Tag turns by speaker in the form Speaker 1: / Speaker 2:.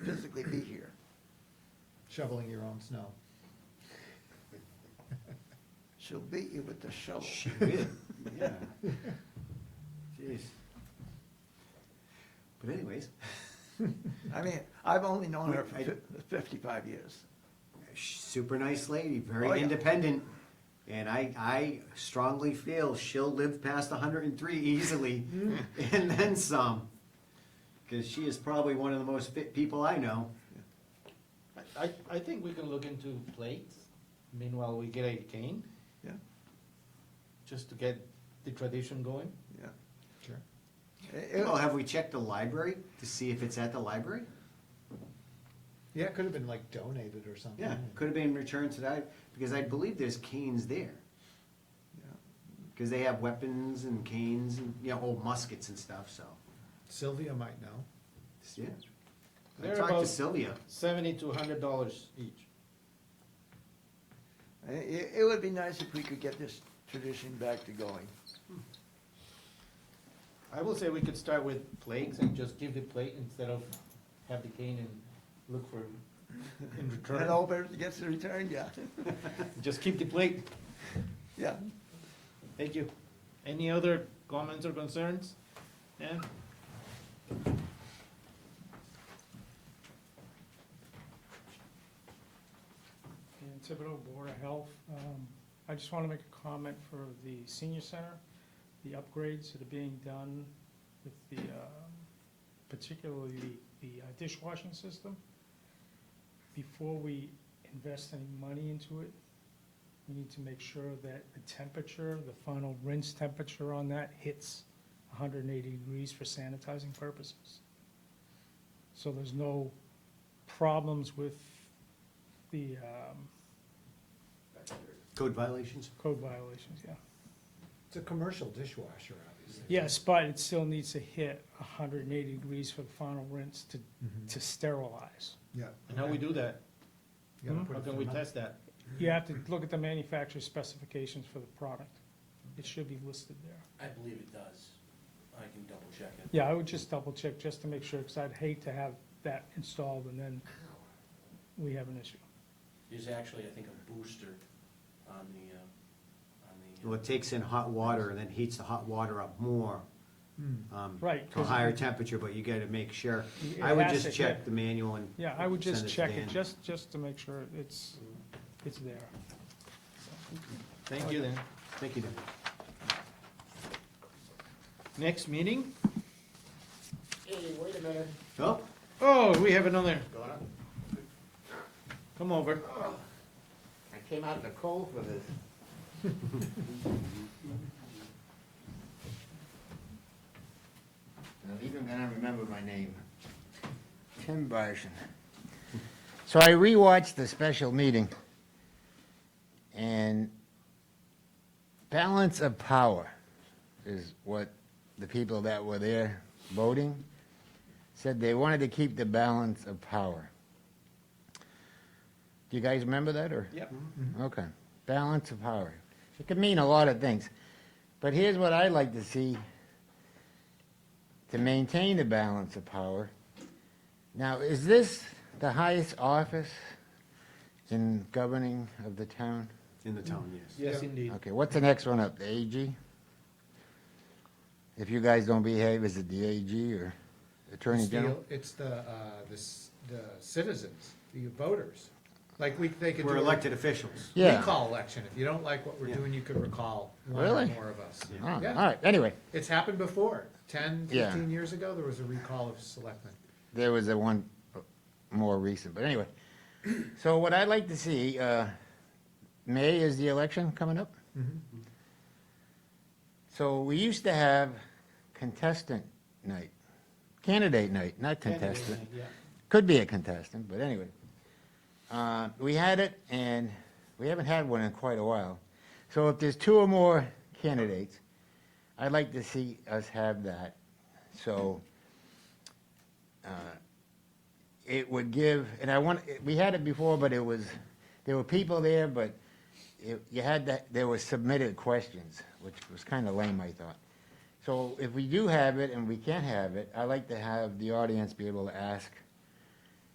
Speaker 1: shoveling your own snow.
Speaker 2: She'll beat you with the shovel.
Speaker 3: She did, yeah. Jeez. But anyways,
Speaker 2: I mean, I've only known her for
Speaker 3: I-
Speaker 2: fif- fifty-five years.
Speaker 3: she's a super nice lady,
Speaker 2: Oh,
Speaker 3: very
Speaker 2: yeah.
Speaker 3: independent. And I, I strongly feel she'll live past hundred and three easily
Speaker 2: Mm-hmm.
Speaker 3: and then some. Cause she is probably one of the most fit people I know.
Speaker 4: I, I think we can look into plates, meanwhile we get a cane,
Speaker 2: Yeah,
Speaker 4: just to get the tradition going.
Speaker 2: yeah.
Speaker 1: Sure.
Speaker 2: It- it-
Speaker 3: Well, have we checked the library to see if it's at the library?
Speaker 1: Yeah, it could have been like donated or something.
Speaker 3: Yeah,
Speaker 2: Mm-hmm.
Speaker 3: could have been returned to that, because I believe there's canes there.
Speaker 2: yeah.
Speaker 3: Because they have weapons and canes and, you know, old muskets and stuff, so,
Speaker 1: Sylvia might know.
Speaker 3: yeah. I
Speaker 4: They're
Speaker 3: talked to
Speaker 4: about-
Speaker 3: Sylvia.
Speaker 4: Seventy to hundred dollars each.
Speaker 2: I- It, it would be nice if we could get this tradition back to going.
Speaker 4: I will say we could start with plates and just give the plate instead of have the cane and look for in
Speaker 2: And
Speaker 4: return.
Speaker 2: all better gets the return, yeah,
Speaker 4: Just keep the plate.
Speaker 2: yeah.
Speaker 4: Thank you. Any other comments or concerns? Yeah?
Speaker 5: Dan Thibodeau, Board of Health. Um, I just want to make a comment for the senior center, the upgrades that are being done with the, um, particularly the the uh, dishwashing system. Before we invest any money into it, we need to make sure that the temperature, the final rinse temperature on that hits 180 degrees for sanitizing purposes. So there's no problems with the um,
Speaker 3: Code violations?
Speaker 5: Code violations, yeah.
Speaker 1: It's a commercial dishwasher, obviously.
Speaker 5: Yes, but it still needs to hit hundred and eighty degrees for the final rinse to, to sterilize.
Speaker 1: Mm-hmm. Yeah.
Speaker 4: And how we do that?
Speaker 1: You gotta
Speaker 5: Hmm?
Speaker 1: put
Speaker 4: How
Speaker 1: it
Speaker 4: can
Speaker 1: through
Speaker 4: we
Speaker 1: my-
Speaker 4: test that?
Speaker 5: You have to look at the manufacturer's specifications for the product. It should be listed there.
Speaker 6: I believe it does. I can double check it.
Speaker 5: Yeah, I would just double check just to make sure, because I'd hate to have that installed and then we have an issue.
Speaker 6: There's actually, I think, a booster on the, uh, on the. uh,
Speaker 3: Well, it takes in hot water and then heats the hot water up more,
Speaker 1: Hmm.
Speaker 3: um,
Speaker 5: Right,
Speaker 3: to a
Speaker 5: 'cause-
Speaker 3: higher temperature, but you gotta make sure.
Speaker 5: It
Speaker 3: I would
Speaker 5: has
Speaker 3: just
Speaker 5: to
Speaker 3: check
Speaker 5: hit-
Speaker 3: the manual and.
Speaker 5: Yeah, I would just
Speaker 3: send to
Speaker 5: check it,
Speaker 3: Dan.
Speaker 5: just, just to make sure it's, it's there.
Speaker 4: Thank you then.
Speaker 3: Thank you, Dan.
Speaker 4: Next meeting?
Speaker 3: Oh,
Speaker 4: Oh, we have another. Come over.
Speaker 7: I came out in the cold for this. I'm even gonna remember my name. Tim Barson. So I rewatched the special meeting. And balance of power is what the people that were there voting said they wanted to keep the balance of power. Do you guys remember that or?
Speaker 4: Yep.
Speaker 7: Okay, balance of power. It could mean a lot of things. But here's what I like to see to maintain the balance of power. Now, is this the highest office in governing of the town?
Speaker 3: in the town, yes.
Speaker 4: Yes, indeed.
Speaker 7: Okay, what's the next one up? The AG? If you guys don't behave, is it the AG or Attorney
Speaker 1: It's
Speaker 7: General?
Speaker 1: the, it's the, uh, the s- the citizens, the voters. Like, we, they could do.
Speaker 3: We're
Speaker 1: a
Speaker 3: elected officials.
Speaker 7: Yeah.
Speaker 1: Recall election. If you don't like what we're
Speaker 3: Yeah.
Speaker 1: doing, you could recall one or
Speaker 7: Really?
Speaker 1: more of us.
Speaker 7: Oh, all
Speaker 1: Yeah.
Speaker 7: right, anyway,
Speaker 1: It's happened before. Ten,
Speaker 7: Yeah.
Speaker 1: fifteen years ago, there was a recall of selectmen.
Speaker 7: there was a one more recent, but anyway. So what I'd like to see, uh, May is the election coming up? Mm-hmm. So we used to have contestant night, candidate night, not contestant.
Speaker 4: Yeah.
Speaker 7: Could be a contestant, but anyway. Uh, We had it, and we haven't had one in quite a while. So if there's two or more candidates, I'd like to see us have that. So uh, it would give, and I want, we had it before, but it was, there were people there, but it- you had that, there were submitted questions, which was kind of lame, I thought. So if we do have it and we can't have it, I like to have the audience be able to ask